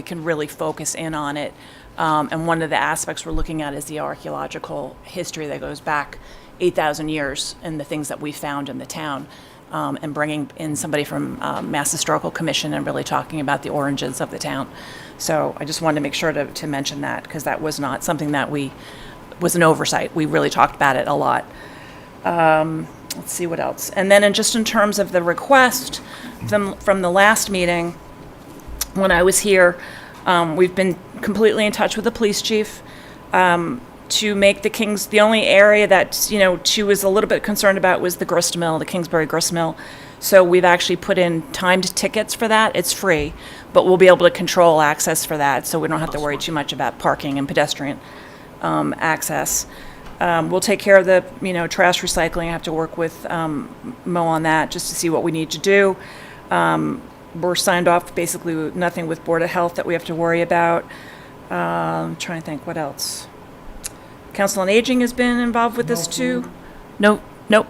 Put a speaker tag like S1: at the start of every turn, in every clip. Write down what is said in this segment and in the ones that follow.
S1: we can really focus in on it. Um, and one of the aspects we're looking at is the archaeological history that goes back 8,000 years and the things that we found in the town. Um, and bringing in somebody from um, Mass Historical Commission and really talking about the origins of the town. So I just wanted to make sure to, to mention that because that was not something that we was an oversight. We really talked about it a lot Um, let's see what else. And then in, just in terms of the request from, from the last meeting, when I was here, um, we've been completely in touch with the police chief um, to make the Kings, the only area that, you know, she was a little bit concerned about was the grist mill, the Kingsbury grist mill. So we've actually put in timed tickets for that. It's free, but we'll be able to control access for that, so we don't have to worry too much about parking and pedestrian um, access. Um, We'll take care of the, you know, trash recycling. I have to work with um, Mo on that, just to see what we need to do we're signed off basically with nothing with Board of Health that we have to worry about. Um, trying to think, what else? Council on Aging has been involved with this too. No, nope.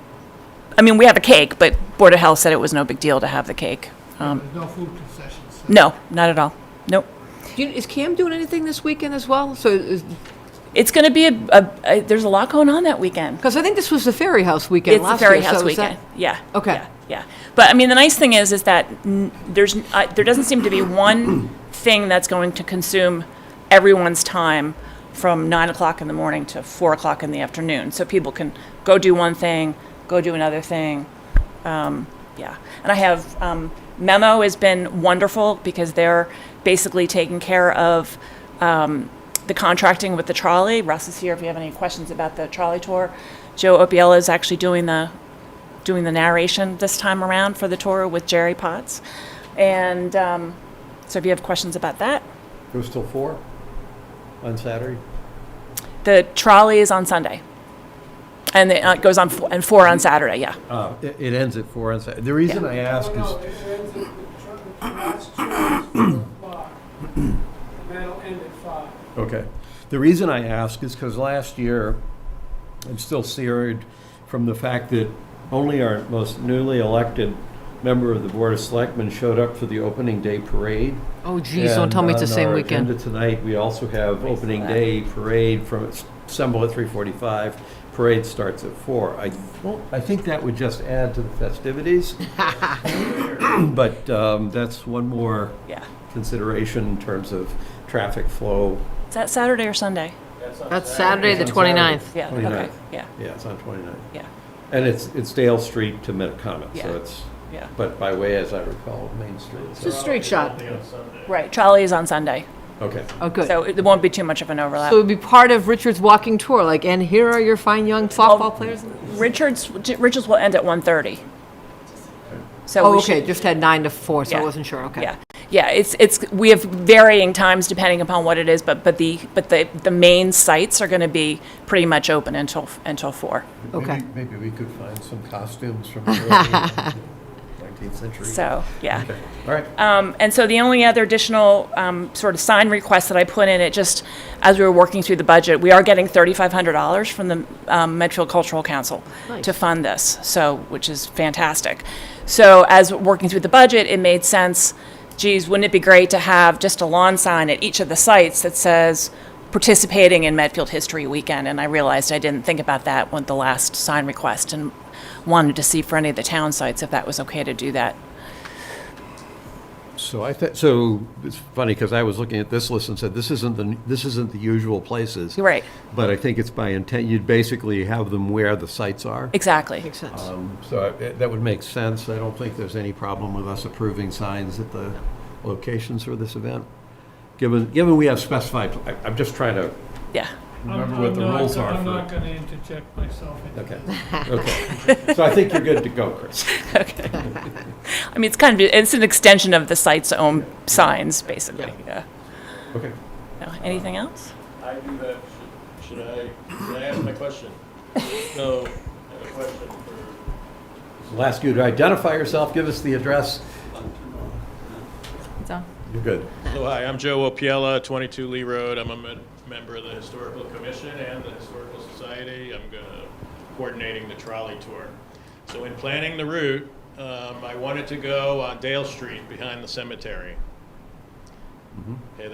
S1: I mean, we have a cake, but Board of Health said it was no big deal to have the cake. Um,
S2: There's no food concessions.
S1: no, not at all. Nope.
S3: You- Is Cam doing anything this weekend as well? So,
S1: It's going to be a, a, a, there's a lot going on that weekend.
S3: because I think this was the Ferry House weekend
S1: it's the
S3: last
S1: Ferry
S3: year.
S1: House
S3: so is that-
S1: weekend. Yeah.
S3: Okay.
S1: Yeah, yeah. But I mean, the nice thing is, is that n- there's n- uh, there doesn't seem to be one thing that's going to consume everyone's time from nine o'clock in the morning to four o'clock in the afternoon. So people can go do one thing, go do another thing. um, Yeah, and I have, um, Memo has been wonderful because they're basically taking care of, um, the contracting with the trolley. Russ is here if you have any questions about the trolley tour. Joe Opiella is actually doing the, doing the narration this time around for the tour with Jerry Potts. And, um, so if you have questions about that,
S4: It was till four on Saturday?
S1: the trolley is on Sunday. And it uh, goes on, fo- and four on Saturday, yeah.
S4: Uh, it, it ends at four on Saturday. The reason I ask is, okay, the reason I ask is because last year, I'm still seared from the fact that only our most newly elected member of the Board of Selectmen showed up for the opening day parade.
S3: Oh, geez, don't tell me it's the
S4: And
S3: same
S4: On our
S3: weekend.
S4: agenda tonight, we also have opening day parade from, assemble at 3:45. Parade starts at four. I, don't- I think that would just add to the festivities. But um, that's one more
S1: Yeah.
S4: consideration in terms of traffic flow.
S1: Is that Saturday or Sunday?
S3: That's Saturday, the
S4: It's on Saturday.
S3: 29th.
S1: Yeah, okay,
S4: 29th.
S1: yeah,
S4: Yeah, it's on 29.
S1: yeah,
S4: And it's, it's Dale Street to Metacomet,
S1: Yeah.
S4: so it's,
S1: yeah.
S4: but by way, as I recall, of Main Street.
S3: It's a
S4: so-
S3: straight shot.
S1: Right, trolley is on Sunday,
S4: Okay.
S3: Oh, good.
S1: so
S3: So
S1: it there won't be too much of an overlap.
S3: it would be part of Richard's walking tour, like, and here are your fine young
S1: Oh,
S3: softball players.
S1: Richards, Richards will end at 1:30. So
S3: Oh,
S1: we
S3: okay,
S1: should,
S3: just had nine to four, so I
S1: Yeah.
S3: wasn't sure, okay.
S1: yeah, yeah, it's, it's, we have varying times depending upon what it is, but, but the, but the, the main sites are going to be pretty much open until, until four.
S3: Okay.
S4: Maybe- Maybe we could find some costumes from the early 19th century.
S1: So, yeah.
S4: Okay, all right.
S1: Um, and so the only other additional um, sort of sign request that I put in, it just, as we were working through the budget, we are getting $3,500 from the um, Medfield Cultural Council to fund this, so, which is fantastic. So as working through the budget, it made sense, geez, wouldn't it be great to have just a lawn sign at each of the sites that says, participating in Medfield History Weekend? And I realized I didn't think about that with the last sign request and wanted to see for any of the town sites if that was okay to do that.
S4: So I thought, so it's funny because I was looking at this list and said, this isn't the, this isn't the usual places.
S1: You're right.
S4: But I think it's by intent, you'd basically have them where the sites are.
S1: Exactly.
S3: Makes sense.
S4: Um, So I- that would make sense. I don't think there's any problem with us approving signs at the locations for this event. Given, given we have specified, I- I'm just trying to
S1: Yeah.
S4: remember what the rules are
S2: I'm not
S4: for.
S2: gonna interject myself. into
S4: Okay,
S2: this.
S4: okay. So I think you're good to go, Chris.
S1: I mean, it's kind of, it's an extension of the site's own signs, basically. Yeah.
S4: Okay.
S1: No, Anything else?
S5: I do that. Should, should I? Should I ask my question? no, I have a question for.
S4: We'll ask you to identify yourself, give us the address.
S1: It's on.
S4: You're good.
S5: Hello, hi. I'm Joe Opiella, 22 Lee Road. I'm a med- member of the Historical Commission and the Historical Society. I'm gonna coordinating the trolley tour. So in planning the route, um, I wanted to go on Dale Street behind the cemetery. Okay,